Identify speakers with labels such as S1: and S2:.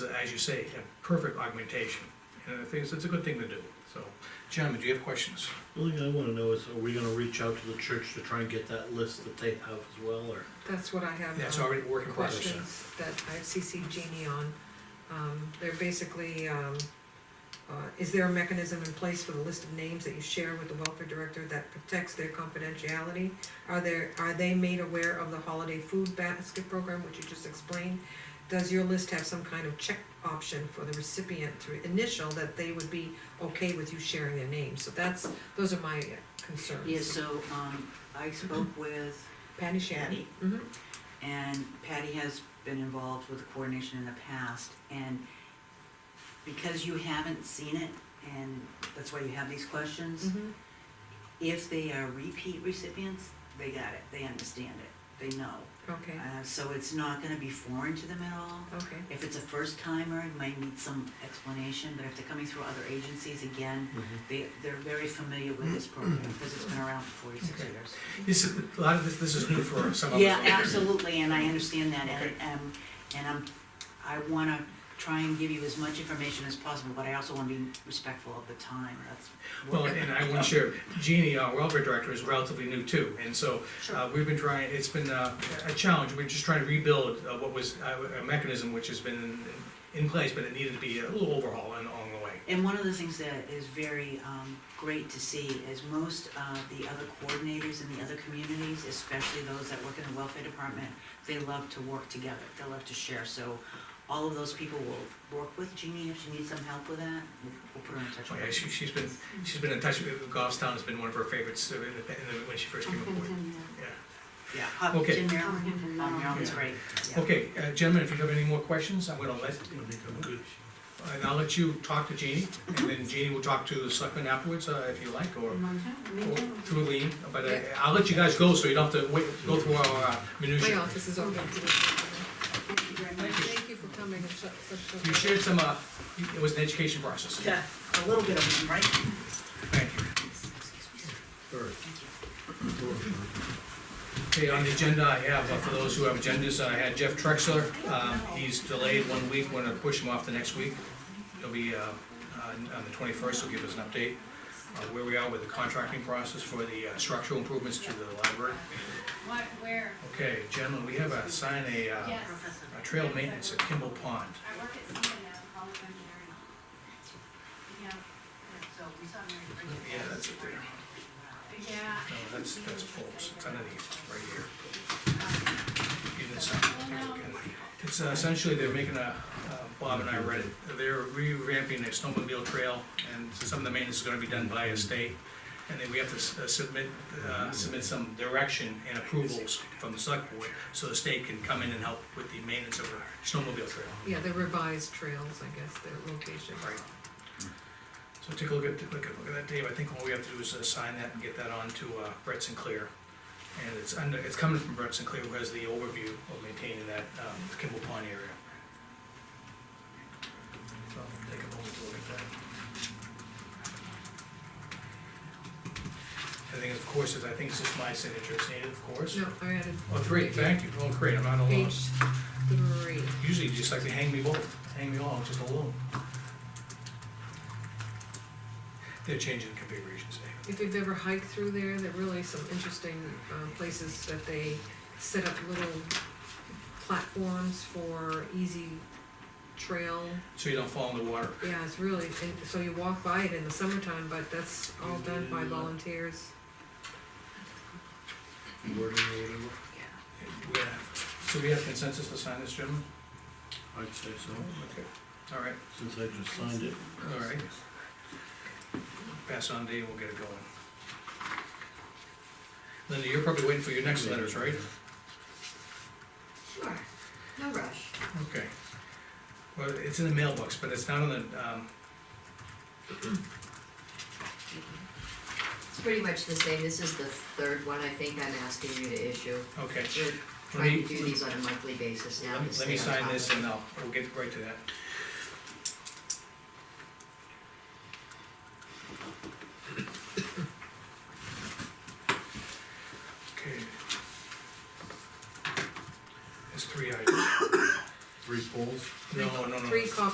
S1: as you say, a perfect augmentation. And I think it's, it's a good thing to do, so. Gentlemen, do you have questions?
S2: The only thing I wanna know is, are we gonna reach out to the church to try and get that list that they have as well, or?
S3: That's what I have.
S1: That's
S3: um,
S1: already a work in progress.
S3: Questions that I've CC'd Jeannie on. Um, they're basically, um, uh, is there a mechanism in place for the list of names that you share with the welfare director that protects their confidentiality? Are there, are they made aware of the holiday food basket program, which you just explained? Does your list have some kind of check option for the recipient to initial that they would be okay with you sharing their name? So that's, those are my concerns.
S4: Yeah, so, um, I spoke with
S3: Patty Shannon.
S4: Patty,
S3: Mm-hmm.
S4: and Patty has been involved with coordination in the past, and because you haven't seen it, and that's why you have these questions,
S3: Mm-hmm.
S4: if they are repeat recipients, they got it, they understand it, they know.
S3: Okay,
S4: Uh, so it's not gonna be foreign to them at all.
S3: okay.
S4: If it's a first timer, it might need some explanation, but if they're coming through other agencies again, they, they're very familiar with this program, because it's been around for forty-six
S1: Okay.
S4: years.
S1: This is, a lot of this, this is new for some of us.
S4: Yeah, absolutely, and I understand that, and,
S1: Okay.
S4: um, and I'm, I wanna try and give you as much information as possible, but I also wanna be respectful of the time, that's.
S1: Well, and I want to share, Jeannie, our welfare director, is relatively new too, and so uh, we've been trying, it's been uh, a challenge, we're just trying to rebuild uh, what was uh, a mechanism which has been in place, but it needed to be a little overhaul and along the way.
S4: And one of the things that is very, um, great to see is most of the other coordinators in the other communities, especially those that work in the welfare department, they love to work together, they love to share, so all of those people will work with Jeannie if she needs some help with that, we'll, we'll put her in touch
S1: Oh,
S4: with
S1: yeah,
S4: her.
S1: she, she's been, she's been in touch with, Goffstown has been one of her favorites uh, in the- in the- when she first came aboard. Yeah.
S4: Yeah, Hopkinton, Maryland, Oh,
S5: Hopkinton,
S4: Maryland's
S1: Um, yeah.
S4: great, yeah.
S1: Okay, uh, gentlemen, if you have any more questions, I'm gonna let,
S2: I think I'm good.
S1: and I'll let you talk to Jeannie, and then Jeannie will talk to the selectmen afterwards, uh, if you like, or or through Lean, but I- I'll let you guys go, so you don't have to wait, go through our uh,
S3: My
S1: minutia.
S3: office is open. Thank you for coming and such, such.
S1: You shared some, uh, it was an education process.
S4: Yeah, a little bit of them, right?
S1: Thank you.
S2: Third.
S1: Okay, on the agenda, I have, uh, for those who have agendas, I had Jeff Trexler, um, he's delayed one week, we're gonna push him off to next week. He'll be, uh, on on the twenty-first, he'll give us an update on where we are with the contracting process for the uh, structural improvements to the library.
S5: What, where?
S1: Okay, gentlemen, we have a, sign a, uh,
S5: Yes,
S1: a trail maintenance at Kimball Pond.
S5: I work at Sienna now, College of Engineering. Yeah,
S4: So we saw Mary Bridget.
S1: Yeah, that's it there.
S5: yeah.
S1: No, that's, that's false, it's underneath, right here. You didn't sign it. Take a look at it. It's uh, essentially, they're making a, uh, Bob and I read it, they're revamping a snowmobile trail, and some of the maintenance is gonna be done by a state. And then we have to s- uh, submit, uh, submit some direction and approvals from the select board, so the state can come in and help with the maintenance of our snowmobile trail.
S3: Yeah, the revised trails, I guess, their location.
S1: Right. So take a look at, look at, look at that, Dave, I think all we have to do is assign that and get that on to uh, Brett Sinclair. And it's under, it's coming from Brett Sinclair, who has the overview of maintaining that um, Kimball Pond area. So I'll take a moment to look at that. I think, of course, is, I think it's just my signature, it's needed, of course.
S3: No, I added
S1: Oh, three, thank you, oh, great, I'm not alone.
S3: page three.
S1: Usually you just like to hang me both, hang me all, just alone. They're changing the configurations, eh? David.
S3: If you've ever hiked through there, there are really some interesting, um, places that they set up little platforms for easy trail.
S1: so you don't fall in the water.
S3: Yeah, it's really, and so you walk by it in the summertime, but that's all done
S1: Mm.
S3: by volunteers.
S2: Wording or whatever,
S1: We have- So we have consensus to sign this, gentlemen?
S2: I'd say so,
S1: Okay. All right,
S2: since I just signed it.
S1: all right. Pass on to you, we'll get it going. Linda, you're probably waiting for your next letters, right?
S5: Sure, no rush.
S1: Okay. Well, it's in the mailbox, but it's not on the, um,
S5: It's pretty much the same, this is the third one I think I'm asking you to issue.
S1: okay.
S5: We're
S1: Let
S5: trying
S1: me-
S5: to do these on a monthly basis now.
S1: Let me,
S5: to
S1: let me
S5: stay on
S1: sign
S5: top
S1: this
S5: of
S1: and
S5: it.
S1: I'll, we'll get right to that.